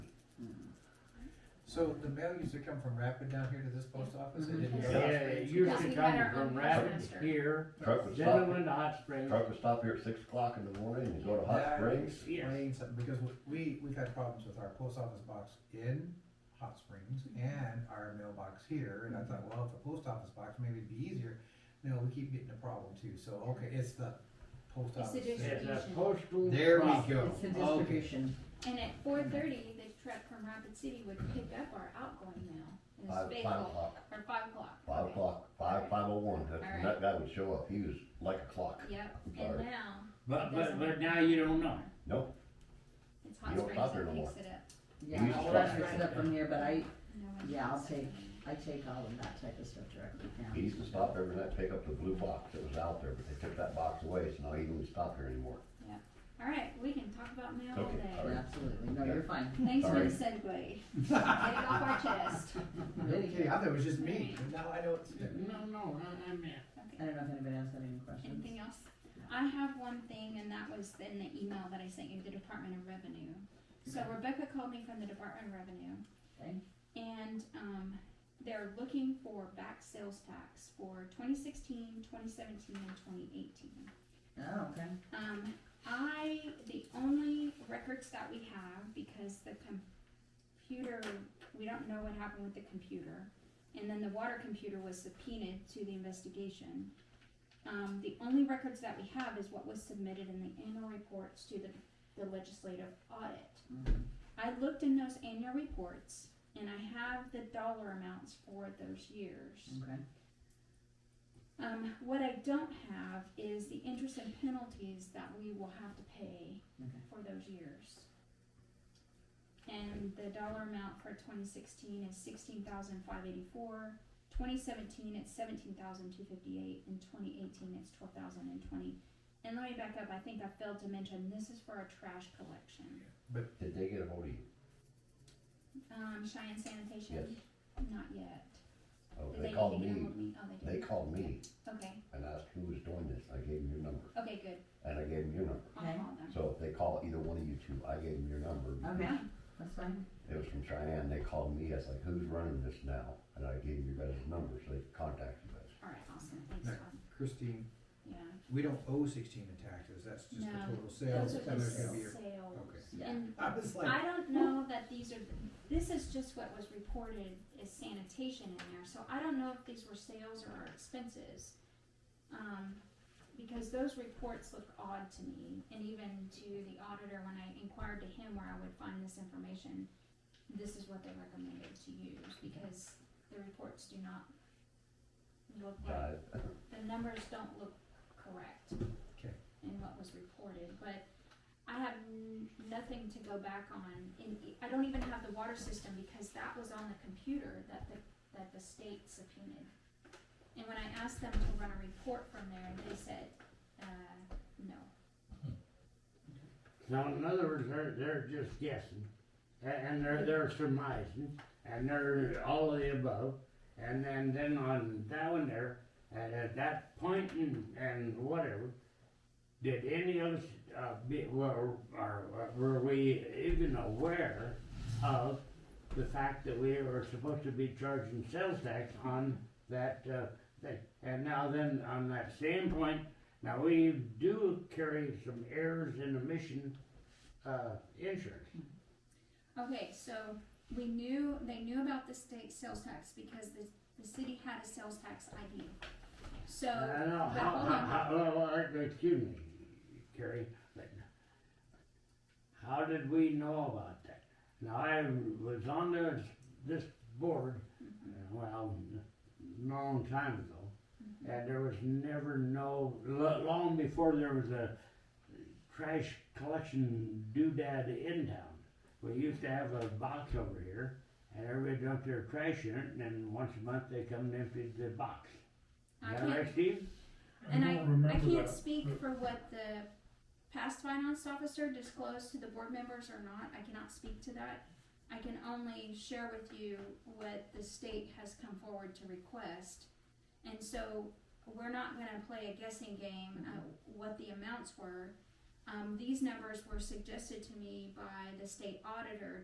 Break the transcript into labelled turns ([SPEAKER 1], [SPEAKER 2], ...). [SPEAKER 1] So the mail used to come from Rapid down here to this post office, it
[SPEAKER 2] Mm-hmm.
[SPEAKER 1] didn't
[SPEAKER 3] Yeah.
[SPEAKER 1] go.
[SPEAKER 4] Yeah, it used
[SPEAKER 3] Yes,
[SPEAKER 4] to
[SPEAKER 3] we
[SPEAKER 4] come
[SPEAKER 3] had our own
[SPEAKER 4] from Rapids
[SPEAKER 3] postmaster.
[SPEAKER 4] here,
[SPEAKER 2] Truck would
[SPEAKER 4] then it
[SPEAKER 2] stop,
[SPEAKER 4] went to Hot Springs.
[SPEAKER 2] truck would stop here at six o'clock in the morning and go to Hot
[SPEAKER 1] That
[SPEAKER 2] Springs.
[SPEAKER 1] explains something, because we, we've had problems with our post office box in Hot Springs and our mailbox here, and I thought, well, if the post office box, maybe it'd be easier. No, we keep getting a problem too, so, okay, it's the post
[SPEAKER 3] It's the
[SPEAKER 1] office.
[SPEAKER 3] district.
[SPEAKER 4] It's a postal.
[SPEAKER 1] There we
[SPEAKER 4] box.
[SPEAKER 1] go. Oh,
[SPEAKER 5] It's the
[SPEAKER 1] Okay.
[SPEAKER 5] distribution.
[SPEAKER 3] And at four thirty, the truck from Rapid City would pick up our outgoing mail. in this
[SPEAKER 2] Five,
[SPEAKER 3] big
[SPEAKER 2] five
[SPEAKER 3] hole.
[SPEAKER 2] o'clock,
[SPEAKER 3] Or five o'clock.
[SPEAKER 2] five
[SPEAKER 3] okay.
[SPEAKER 2] o'clock, five, five oh one, that,
[SPEAKER 3] Alright.
[SPEAKER 2] that guy would show up, he was like a clock.
[SPEAKER 3] Yep,
[SPEAKER 2] I'm
[SPEAKER 3] and
[SPEAKER 2] sorry.
[SPEAKER 3] now,
[SPEAKER 4] But,
[SPEAKER 3] Doesn't
[SPEAKER 4] but,
[SPEAKER 3] matter.
[SPEAKER 4] but now you don't know.
[SPEAKER 2] Nope.
[SPEAKER 3] it's Hot
[SPEAKER 2] You don't
[SPEAKER 3] Springs
[SPEAKER 2] stop there
[SPEAKER 3] that
[SPEAKER 2] no more.
[SPEAKER 3] picks it up.
[SPEAKER 5] Yeah,
[SPEAKER 2] used to
[SPEAKER 5] all that's
[SPEAKER 2] drive.
[SPEAKER 5] right up from here, but I,
[SPEAKER 3] No one
[SPEAKER 5] Yeah, I'll
[SPEAKER 3] picks it up.
[SPEAKER 5] I take all of that type of stuff directly
[SPEAKER 2] He
[SPEAKER 5] down.
[SPEAKER 2] used to stop every night, pick up the blue box that was out there, but they took that box away, so now he doesn't stop here anymore.
[SPEAKER 3] All right, we can talk about mail all
[SPEAKER 2] Okay, all
[SPEAKER 3] day.
[SPEAKER 2] right.
[SPEAKER 5] Absolutely, no, you're fine.
[SPEAKER 3] Thanks for
[SPEAKER 2] Sorry.
[SPEAKER 3] the segue. Get it off our chest.
[SPEAKER 1] Okay, I thought it was just me, but now I know it's.
[SPEAKER 4] No, no, I, I mean,
[SPEAKER 5] I
[SPEAKER 3] Okay,
[SPEAKER 5] don't know if anybody else had any questions.
[SPEAKER 3] anything else? I have one thing, and that was in the email that I sent you, the Department of Revenue. So Rebecca called me from the Department of Revenue.
[SPEAKER 5] Okay.
[SPEAKER 3] And, um, they're looking for back sales tax for 2016, 2017, and twenty eighteen.
[SPEAKER 5] Oh, okay.
[SPEAKER 3] Um, I, the only records that we have, because the computer, we don't know what happened with the computer. And then the water computer was subpoenaed to the investigation. Um, the only records that we have is what was submitted in the annual reports to the, the legislative audit.
[SPEAKER 5] Mhm.
[SPEAKER 3] I looked in those annual reports and I have the dollar amounts for those years.
[SPEAKER 5] Okay,
[SPEAKER 3] Um, what I don't have is the interest and penalties that we will have to pay
[SPEAKER 5] Okay.
[SPEAKER 3] for those years. And the dollar amount for twenty sixteen is sixteen thousand five eighty-four, twenty seventeen it's seventeen thousand two fifty-eight, and twenty eighteen it's twelve thousand and twenty. And let me back up, I think I failed to mention, this is for our trash collection.
[SPEAKER 2] Did they get a hold of you?
[SPEAKER 3] Um, Cheyenne Sanitation? Not yet.
[SPEAKER 2] Oh,
[SPEAKER 3] Did
[SPEAKER 2] they
[SPEAKER 3] get
[SPEAKER 2] called
[SPEAKER 3] a
[SPEAKER 2] me,
[SPEAKER 3] hold of me? Oh, they
[SPEAKER 2] they
[SPEAKER 3] did.
[SPEAKER 2] called me
[SPEAKER 3] Okay,
[SPEAKER 2] and asked who was doing this, I gave them your number,
[SPEAKER 3] okay, good,
[SPEAKER 2] and I gave them your number.
[SPEAKER 3] I'll
[SPEAKER 5] Okay.
[SPEAKER 3] call them.
[SPEAKER 2] So if they call either one of you two, I gave them your number.
[SPEAKER 5] okay, that's fine.
[SPEAKER 2] It was from Cheyenne, they called me, I was like, who's running this now? And I gave them your guys' number, so they could contact you guys.
[SPEAKER 3] All right, awesome, thanks,
[SPEAKER 1] Right.
[SPEAKER 3] Todd.
[SPEAKER 1] Christine,
[SPEAKER 3] Yeah.
[SPEAKER 1] we don't owe sixteen in taxes, that's just
[SPEAKER 3] No,
[SPEAKER 1] the total
[SPEAKER 3] Those
[SPEAKER 1] sales,
[SPEAKER 3] are
[SPEAKER 1] and
[SPEAKER 3] the
[SPEAKER 1] there's gonna be, a-
[SPEAKER 3] sales.
[SPEAKER 5] Yeah,
[SPEAKER 3] And
[SPEAKER 1] I was like.
[SPEAKER 3] I don't know that these are, this is just what was reported as sanitation in there, so I don't know if these were sales or our expenses. Um, because those reports look odd to me, and even to the auditor, when I inquired to him where I would find this information, this is what they recommended to use, because the reports do not look like
[SPEAKER 2] Died.
[SPEAKER 3] the numbers don't look correct.
[SPEAKER 1] Okay.
[SPEAKER 3] In what was reported, but I have n- nothing to go back on, and I don't even have the water system because that was on the computer that the, that the state subpoenaed. And when I asked them to run a report from there, they said, uh, no.
[SPEAKER 4] so in other words, they're, they're just guessing, and, and they're, they're surmising, and they're all of the above. And then, then on that one there, and at that point and, and whatever, did any of us, uh, be, were, are, were we even aware of the fact that we were supposed to be charging sales tax on that, uh, thing? And now then, on that same point, now we do carry some errors in emission, uh, insurance.
[SPEAKER 3] Okay, so we knew, they knew about the state sales tax because the, the city had a sales tax ID. So.
[SPEAKER 4] I don't know,
[SPEAKER 3] Uh, but
[SPEAKER 4] how,
[SPEAKER 3] hold on.
[SPEAKER 4] how, how, well, well, excuse me, Carrie, but how did we know about that? Now, I was on this, this board,
[SPEAKER 3] mm-hmm,
[SPEAKER 4] uh, well, a long time ago,
[SPEAKER 3] mm-hmm.
[SPEAKER 4] and there was never no, lo- long before there was a trash collection doodad in town. We used to have a box over here, and everybody dumped their trash in it, and then once a month they come and emptied the box.
[SPEAKER 3] I
[SPEAKER 4] Yeah,
[SPEAKER 3] can't-
[SPEAKER 4] right, Steve?
[SPEAKER 3] And
[SPEAKER 6] don't remember
[SPEAKER 3] I, I can't
[SPEAKER 6] that.
[SPEAKER 3] speak for what the past finance officer disclosed to the board members or not, I cannot speak to that. I can only share with you what the state has come forward to request. And so, we're not gonna play a guessing game at what the amounts were. Um, these numbers were suggested to me by the state auditor